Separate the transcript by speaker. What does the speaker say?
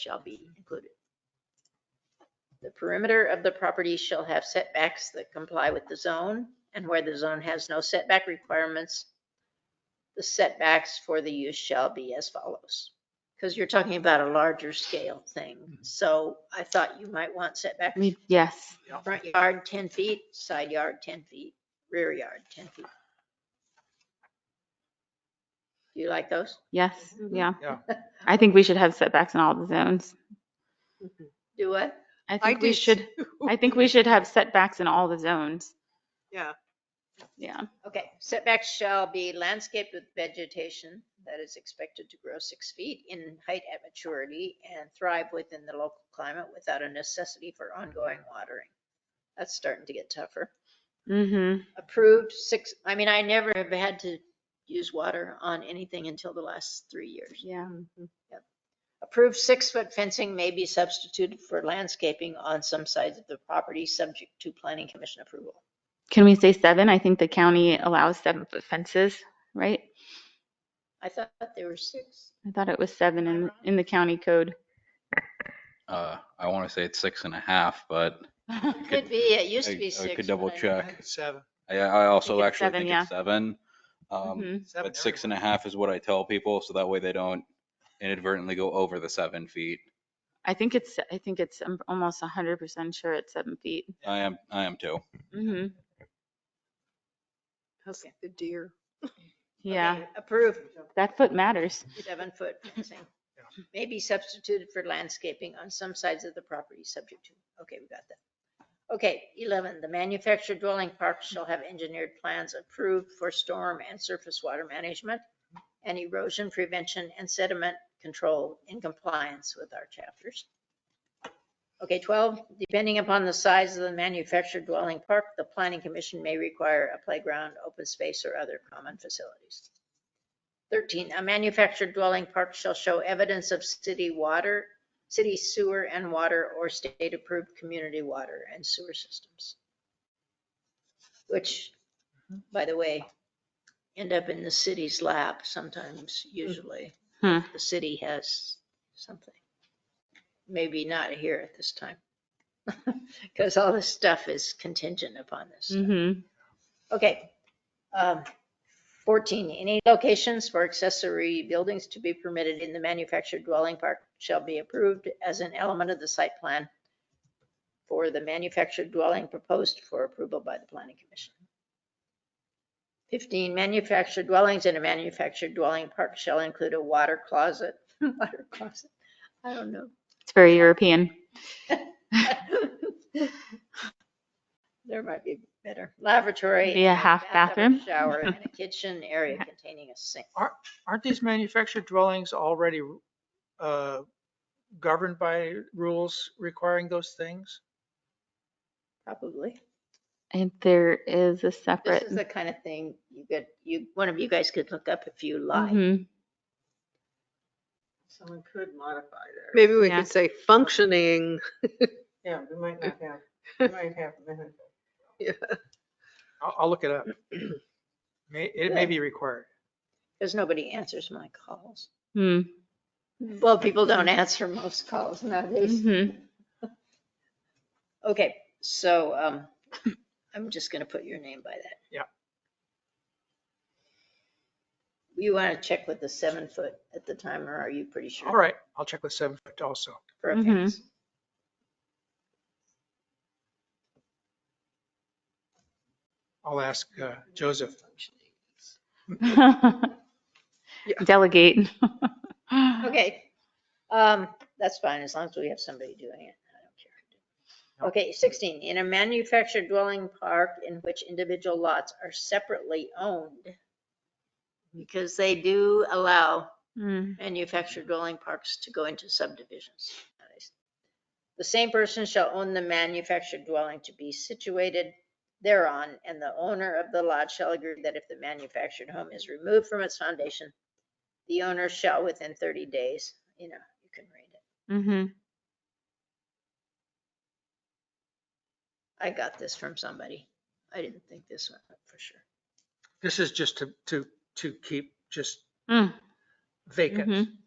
Speaker 1: shall be included. The perimeter of the property shall have setbacks that comply with the zone, and where the zone has no setback requirements, the setbacks for the use shall be as follows. Because you're talking about a larger scale thing, so I thought you might want setback
Speaker 2: Me, yes.
Speaker 1: front yard 10 feet, side yard 10 feet, rear yard 10 feet. Do you like those?
Speaker 2: Yes.
Speaker 3: Mm-hmm.
Speaker 1: Mhm.
Speaker 2: Yeah.
Speaker 4: Yeah.
Speaker 2: I think we should have setbacks in all the zones.
Speaker 1: Do what?
Speaker 2: I
Speaker 3: I
Speaker 2: think we
Speaker 3: do
Speaker 2: should, I think we should have setbacks in all the zones.
Speaker 3: Yeah.
Speaker 2: Yeah.
Speaker 1: Okay, setbacks shall be landscaped with vegetation that is expected to grow six feet in height at maturity and thrive within the local climate without a necessity for ongoing watering. That's starting to get tougher.
Speaker 2: Mm-hmm.
Speaker 1: Approved six, I mean, I never have had to use water on anything until the last three years.
Speaker 2: Yeah.
Speaker 1: Approved six-foot fencing may be substituted for landscaping on some sides of the property, subject to planning commission approval.
Speaker 2: Can we say seven? I think the county allows seven foot fences, right?
Speaker 1: I thought there were six.
Speaker 2: I thought it was seven
Speaker 3: Uh-huh.
Speaker 2: in, in the county code.
Speaker 5: Uh, I want to say it's six and a half, but
Speaker 1: Could be, it used to
Speaker 5: I
Speaker 1: be
Speaker 5: I
Speaker 1: six.
Speaker 5: could double
Speaker 1: but I-
Speaker 5: check.
Speaker 4: Seven.
Speaker 5: I, I also
Speaker 2: it's
Speaker 5: actually
Speaker 2: seven,
Speaker 5: think
Speaker 2: yeah.
Speaker 5: it's seven.
Speaker 1: Mm-hmm.
Speaker 5: Um,
Speaker 2: Mhm.
Speaker 5: but six and a half is what I tell people, so that way they don't inadvertently go over the seven feet.
Speaker 2: I think it's, I think it's um, almost hundred percent sure it's seven feet.
Speaker 5: I am, I am too.
Speaker 2: hmm
Speaker 3: How's the deer?
Speaker 2: Yeah.
Speaker 1: Okay, Approved,
Speaker 2: That foot matters.
Speaker 1: seven-foot fencing. May be substituted for landscaping on some sides of the property, subject to, okay, we got that. Okay, 11, the manufactured dwelling park shall have engineered plans approved for storm and surface water management and erosion prevention and sediment control in compliance with our chapters. Okay, 12, depending upon the size of the manufactured dwelling park, the planning commission may require a playground, open space, or other common facilities. 13, a manufactured dwelling park shall show evidence of city water, city sewer and water, or state-approved community water and sewer systems. Which, by the way, end up in the city's lap sometimes, usually.
Speaker 2: Hmm.
Speaker 1: The city has something. Maybe not here at this time. Because all this stuff is contingent upon this. stuff.
Speaker 2: Mm-hmm.
Speaker 1: Okay. Um, 14, any locations for accessory buildings to be permitted in the manufactured dwelling park shall be approved as an element of the site plan for the manufactured dwelling proposed for approval by the planning commission. 15, manufactured dwellings in a manufactured dwelling park shall include a water closet. Water closet, I don't know.
Speaker 2: It's very European.
Speaker 1: There might be better. Lavatory.
Speaker 2: Be a half bathroom.
Speaker 1: Shower and a kitchen area containing a sink.
Speaker 4: Aren't these manufactured dwellings already uh, governed by rules requiring those things?
Speaker 1: Probably.
Speaker 2: And there is a
Speaker 1: This
Speaker 2: separate.
Speaker 1: is the kind of thing you could, you, one of you guys could look up if you like.
Speaker 2: Mhm.
Speaker 6: Someone could modify there.
Speaker 3: Maybe we
Speaker 2: Yeah.
Speaker 3: could say functioning.
Speaker 6: Yeah, we might not have, we might have.
Speaker 4: I'll, I'll look it up. May, it may be required.
Speaker 1: Because nobody answers my calls.
Speaker 2: Hmm.
Speaker 1: Well, people don't answer most calls nowadays.
Speaker 2: Mhm. Mm-hmm.
Speaker 1: Okay, so, um, I'm just gonna put your name by that.
Speaker 4: Yeah.
Speaker 1: You wanna check with the seven foot at the time, or are you pretty sure?
Speaker 4: All right, I'll check with seven foot also.
Speaker 1: for a
Speaker 2: Mhm.
Speaker 1: fence.
Speaker 4: I'll ask uh, Joseph.
Speaker 2: mm-hmm. Delegate.
Speaker 1: Okay, um, that's fine, as long as we have somebody doing it, I don't care. Okay, sixteen, in a manufactured dwelling park in which individual lots are separately owned, because they do allow
Speaker 2: Mm.
Speaker 1: manufactured dwelling parks to go into subdivisions. The same person shall own the manufactured dwelling to be situated thereon, and the owner of the lot shall agree that if the manufactured home is removed from its foundation, the owner shall within thirty days, you know, you can read it.
Speaker 2: Mhm.
Speaker 1: I got this from somebody. I didn't think this one up for sure.
Speaker 4: This is just to, to, to keep just
Speaker 2: Mm.
Speaker 4: vacant.
Speaker 5: Mm-hmm.
Speaker 2: Mhm.